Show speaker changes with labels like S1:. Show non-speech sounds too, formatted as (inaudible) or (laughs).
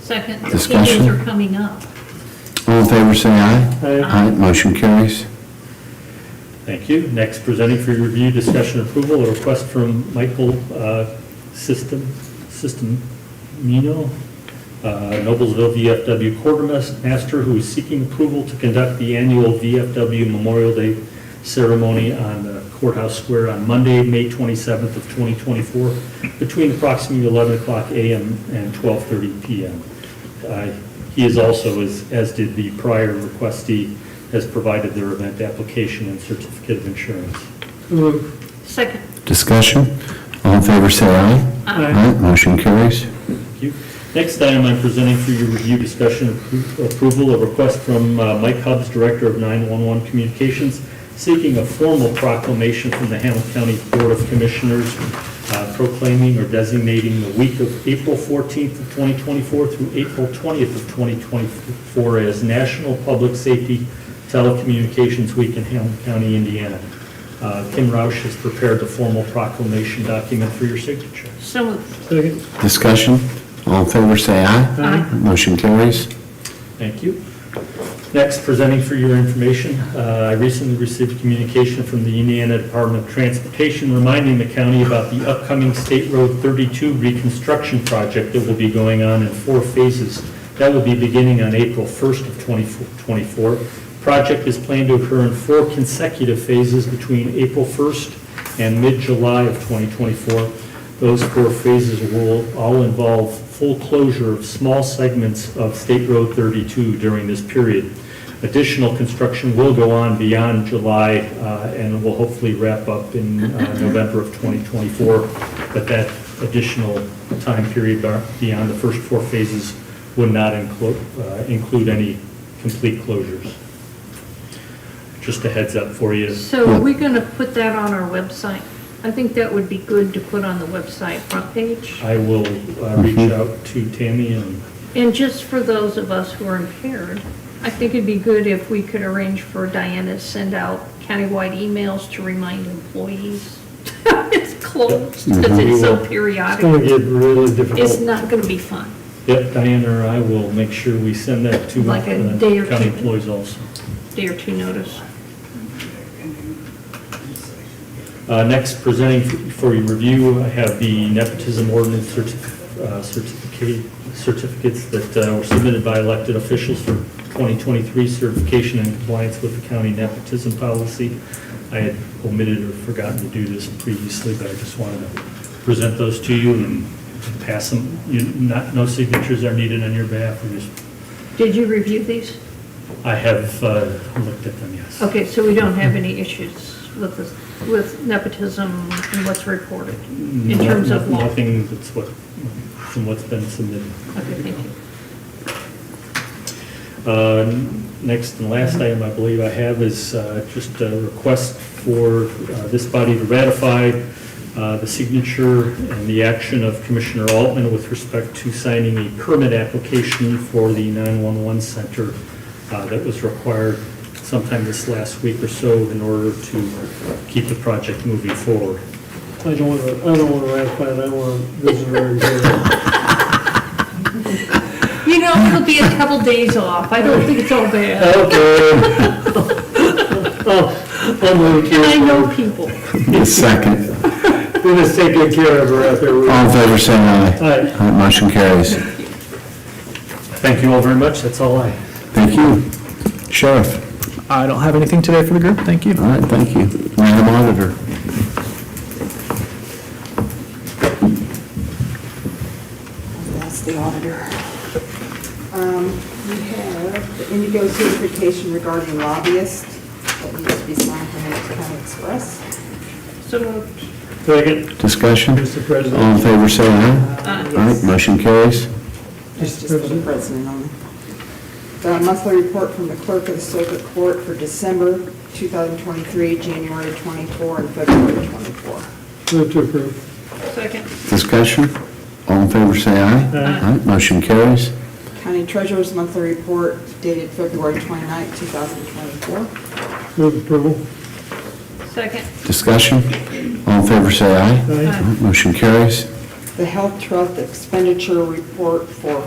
S1: Second, the
S2: Discussion.
S1: meetings are coming up.
S2: All in favor, say aye. Aye, motion carries.
S3: Thank you. Next, presenting for your review, discussion, approval, a request from Michael uh, System, System Mino, uh, Noblesville VFW quartermaster, who is seeking approval to conduct the annual VFW Memorial Day ceremony on the Courthouse Square on Monday, May 27th of 2024, between approximately 11 o'clock a.m. and 12:30 p.m. Uh, He is also, as as did the prior requestee, has provided their event application and certificate of insurance.
S1: Second,
S2: Discussion. All in favor, say aye.
S1: Aye.
S2: motion carries.
S3: Thank you. Next item I'm presenting for your review, discussion, appro- approval, a request from uh, Mike Hubbs, Director of 911 Communications, seeking a formal proclamation from the Hamilton County Board of Commissioners uh, proclaiming or designating the week of April 14th of 2024 through April 20th of 2024 as National Public Safety Telecommunications Week in Hamilton County, Indiana. Uh, Kim Roush has prepared the formal proclamation document for your signature.
S1: so moved.
S2: Discussion. All in favor, say aye.
S1: Aye.
S2: Motion carries.
S3: Thank you. Next, presenting for your information, uh, I recently received communication from the Indiana Department of Transportation reminding the county about the upcoming State Road 32 reconstruction project that will be going on in four phases. That will be beginning on April 1st of 2024. Project is planned to occur in four consecutive phases between April 1st and mid-July of 2024. Those four phases will all involve full closure of small segments of State Road 32 during this period. Additional construction will go on beyond July uh, and will hopefully wrap up in uh, November of 2024. But that additional time period bar- beyond the first four phases would not include, include any complete closures. Just a heads up for you.
S1: So are we going to put that on our website? I think that would be good to put on the website front page.
S3: I will uh, reach out to Tammy and
S1: And just for those of us who are impaired, I think it'd be good if we could arrange for Diana to send out countywide emails to remind employees (laughs) it's closed
S3: Mhm.
S1: because it's so
S4: Mm-hmm. It's going to
S1: periodic.
S4: get really
S1: It's
S4: difficult.
S1: not going to be fun.
S3: Yep, Diana or I will make sure we send that to
S1: Like a
S3: uh,
S1: day or
S3: county
S1: two.
S3: employees also.
S1: Day or two notice.
S3: Uh, Next, presenting f- for your review, I have the nepotism ordinance certi- uh, certificate, certificates that uh, were submitted by elected officials for 2023 certification and compliance with the county nepotism policy. I had omitted or forgotten to do this previously, but I just wanted to present those to you and pass them. You- Not, no signatures are needed on your behalf, we just,
S1: Did you review these?
S3: I have uh, looked at them, yes.
S1: Okay, so we don't have any issues with this, with nepotism and what's reported in terms of law? Okay,
S3: Nothing that's what, from what's been submitted.
S1: thank you.
S3: Uh, Next and last item I believe I have is uh, just a request for uh, this body to ratify uh, the signature and the action of Commissioner Altman with respect to signing a permit application for the 911 center uh, that was required sometime this last week or so in order to keep the project moving forward.
S4: I don't want to, I don't want to ratify it, I want to visitor hearing.
S1: You know, it'll be a couple days off, I don't think it's all bad.
S3: (laughs)
S4: Okay. (laughs) I'm really
S1: And I
S4: kidding.
S1: know people.
S2: Second.
S4: We're just taking care of her out there. We're-
S2: All in favor, say aye.
S4: Aye.
S2: Aye, motion carries.
S3: Thank you all very much, that's all I have.
S2: Thank you. Sheriff.
S5: I don't have anything today for the group, thank you.
S2: All right, thank you. Madam Auditor.
S6: That's the auditor. Um, We have the Indigo certification regarding lobbyists that needs to be signed from Hamilton County Express.
S1: So moved.
S4: Second,
S2: Discussion.
S4: Mr. President.
S3: Um,
S2: All in favor, say aye.
S6: Uh,
S2: All right,
S6: yes,
S2: motion carries.
S6: That's just for the president on The monthly report from the clerk of the circuit court for December 2023, January 24, and February 24.
S4: Move to approve.
S1: Second.
S2: Discussion. All in favor, say aye.
S4: Aye.
S2: All right, motion carries.
S6: County treasurer's monthly report dated February 29, 2024.
S4: Move approval.
S1: Second.
S2: Discussion. All in favor, say aye.
S4: Aye.
S2: All right, Motion carries.
S6: The health trust expenditure report for